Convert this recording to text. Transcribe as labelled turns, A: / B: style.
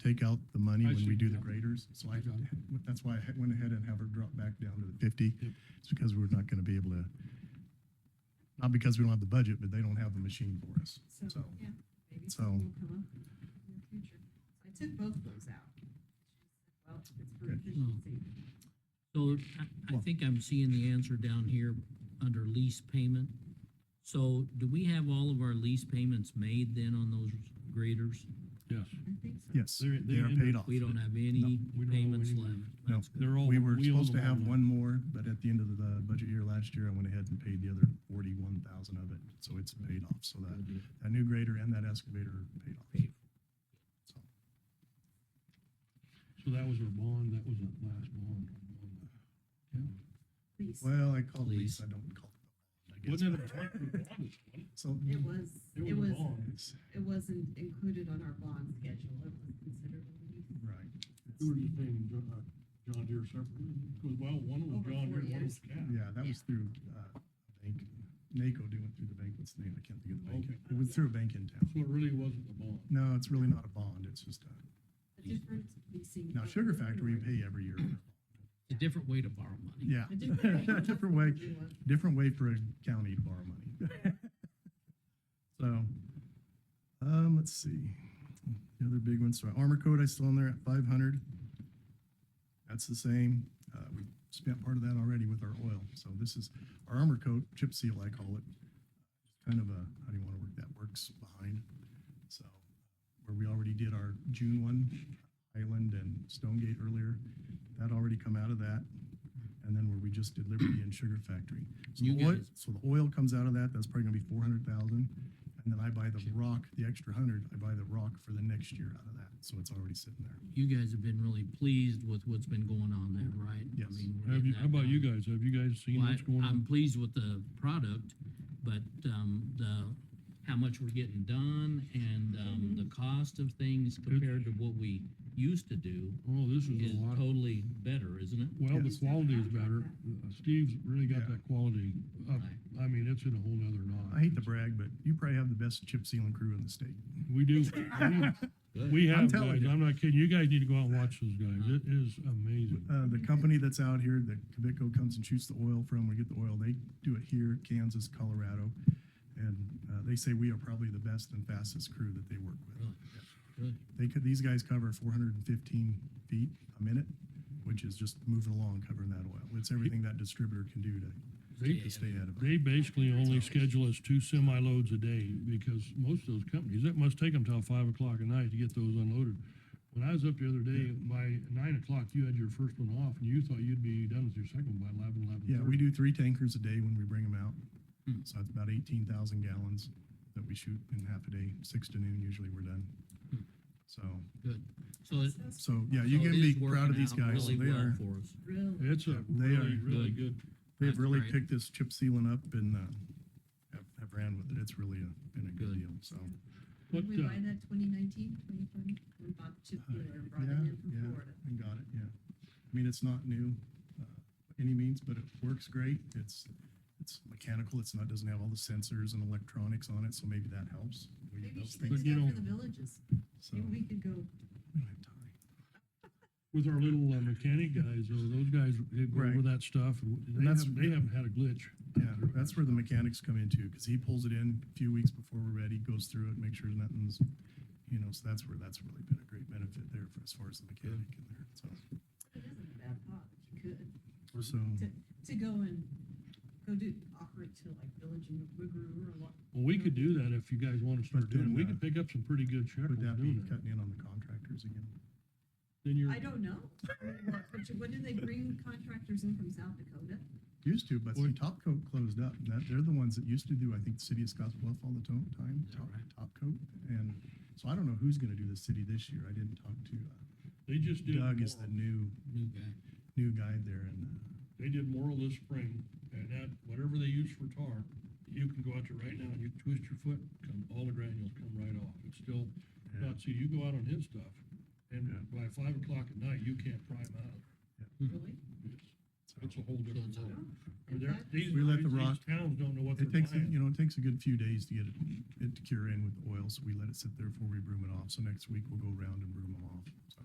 A: take out the money
B: I
A: when we
B: see,
A: do the
B: yeah.
A: graders. So I,
B: Got it.
A: that's why I had- went ahead and have her drop back down to the fifty.
B: Yep.
A: It's because we're not gonna be able to, not because we don't have the budget, but they don't have the machine for us, so.
C: Yeah, maybe
A: so-
C: something will come up in the future. So I took both of those out. Well, it's for
A: Okay.
C: efficiency.
D: So I, I
A: Well-
D: think I'm seeing the answer down here under lease payment. So do we have all of our lease payments made then on those graders?
B: Yes,
C: I think so.
A: Yes,
B: They're-
A: they
B: they're
A: are
B: in
A: paid
B: the-
A: off.
D: We don't have any
B: we don't owe
D: payments
B: any
D: left.
B: money.
A: No,
D: That's good.
B: they're all.
A: we were
B: own
A: supposed to
B: them all
A: have
B: now.
A: one more, but at the end of the budget year last year, I went ahead and paid the other forty-one thousand of it. So it's paid off, so that, that new grader and that excavator are paid off. So,
B: So that was our bond, that was our last bond. on the town.
C: Please.
A: Well, I called
D: Please.
A: lease, I don't call it. a
B: Wasn't
A: bond,
B: it a bond? It was a bond,
A: So,
C: It was, it
B: a
C: was,
B: bond.
C: it wasn't included on our bond schedule. It was considered a lease.
A: right,
B: We were just paying John, uh, John Deere separately, because well, one was
C: Over
B: John
C: four
B: Deere, one was
C: years.
B: Cat.
A: yeah, that was through, uh, bank, NACO doing through the bank, what's the name, I can't think of the bank,
B: Okay.
A: it was through a bank in town.
B: So it really wasn't a bond.
A: No, it's really not a bond, it's just a,
C: A different leasing.
A: now Sugar Factory, we pay every year,
D: It's a different way to borrow money.
A: yeah.
C: A different way.
A: Different way,
C: You want-
A: different way for a county to borrow money. So, um, let's see, the other big ones, so armor coat, I still on there at five hundred. That's the same, uh, we spent part of that already with our oil, so this is our armor coat, chip seal, I call it. Kind of a, how do you wanna work that, works behind, so, where we already did our June one, Island and Stonegate earlier, that already come out of that. And then where we just did Liberty and Sugar Factory. So
D: You
A: the oil,
D: guys-
A: so the oil comes out of that, that's probably gonna be four hundred thousand. And then I buy the rock, the extra hundred, I buy the rock for the next year out of that, so it's already sitting there.
D: You guys have been really pleased with what's been going on there, right? I
A: Yes.
D: mean, we're
B: Have
D: getting
B: you,
D: that
B: how about you
D: down.
B: guys? Have you guys seen
D: Well, I-
B: what's going
D: I'm
B: on?
D: pleased with the product, but, um, the, how much we're getting done and, um, the cost of things compared to what we used to do
B: Oh, this is
D: is
B: a lot.
D: totally better, isn't it?
B: Well, the
A: Yes.
B: quality is better. Uh, Steve's really got
A: Yeah.
B: that quality up.
D: Right.
B: I mean, it's in a whole nother notch.
A: I hate to brag, but you probably have the best chip sealing crew in the state.
B: We do. We- We
A: I'm
B: have,
A: telling
B: guys.
A: you.
B: I'm not kidding. You guys need to go out and watch those guys. It is amazing.
A: Uh, the company that's out here that Cavico comes and shoots the oil from, we get the oil, they do it here, Kansas, Colorado. And, uh, they say we are probably the best and fastest crew that they work with.
D: Really? Good.
A: They could, these guys cover four hundred and fifteen feet a minute, which is just moving along covering that oil. It's everything that distributor can do to,
B: They,
A: to stay ahead of it.
B: they basically only schedule us two semi loads a day because most of those companies, it must take them till five o'clock at night to get those unloaded. When I was up the other day, by nine o'clock, you had your first one off and you thought you'd be done with your second by eleven, eleven
A: Yeah, we
B: thirty.
A: do three tankers a day when we bring them out.
D: Hmm.
A: So that's about eighteen thousand gallons that we shoot in half a day, six to noon usually we're done. So,
D: Good. So it.
A: so, yeah, you
D: so it
A: can
D: is
A: be proud
D: working
A: of these
D: out
A: guys.
D: really
A: They
D: well
A: are,
D: For us.
C: Really,
B: It's a
A: They
B: really,
A: are
B: really good.
A: they've
D: That's
A: really
D: great.
A: picked this chip sealing up and, uh, have, have ran with it. It's really a, been a good
D: Good.
A: deal, so.
B: What,
C: did we
B: uh,
C: buy that 2019, 2020? We bought the chip dealer and brought it
A: Yeah,
C: in from
A: yeah.
C: Florida.
A: And got it, yeah. I mean, it's not new, uh, by any means, but it works great. It's, it's mechanical. It's not, doesn't have all the sensors and electronics on it, so maybe that helps. We need
C: Maybe you
A: those
C: should do
A: things,
B: But you
C: that for
B: don't-
C: the villages.
A: so.
C: Maybe we could go
A: We don't have time.
B: With our little uh, mechanic guys, though, those guys, they go over
A: Right.
B: that stuff, and they
A: that's-
B: haven't, they haven't had a glitch.
A: Yeah, that's where the mechanics come into, because he pulls it in a few weeks before we're ready, goes through it, makes sure nothing's, you know, so that's where, that's really been a great benefit there for as far as the mechanic in there, so.
C: It isn't a bad thought, if you could,
A: So,
C: to go and, go do, offer it to like Village and Wigru or what.
B: Well, we could do that if you guys want to
A: Let's
B: start
A: do
B: doing it. We
A: that.
B: could pick up some pretty good shekels
A: would that be
B: doing that.
A: cutting in on the contractors again?
B: Then you're,
C: I don't know. What- what- What do they bring contractors in from South Dakota?
A: Used to, but
B: Or-
A: see, Top Coat closed up. That, they're the ones that used to do, I think, the city of Scotts Bluff all the to- time,
D: Is that
A: Top,
D: right?
A: Top Coat. And so I don't know who's gonna do the city this year. I didn't talk to, uh,
B: they just did,
A: Doug is the
B: Morrill.
A: new,
D: New guy.
A: new guy there and, uh,
B: they did Morrill this spring, and that, whatever they use for tar, you can go out there right now, and you twist your foot, come, all the granules come right off. It's still,
A: Yeah.
B: not, see, you go out on his stuff, and
A: Yeah.
B: by five o'clock at night, you can't pry them out.
C: Really?
B: It's, it's a whole different
D: So it's-
B: world. I
C: Is
B: mean, they're-
C: that-
B: these,
A: We let the
B: these
A: rock-
B: towns don't know what they're
A: It takes,
B: buying.
A: you know, it takes a good few days to get it, it to cure in with the oil, so we let it sit there before we broom it off. So next week we'll go around and broom them off.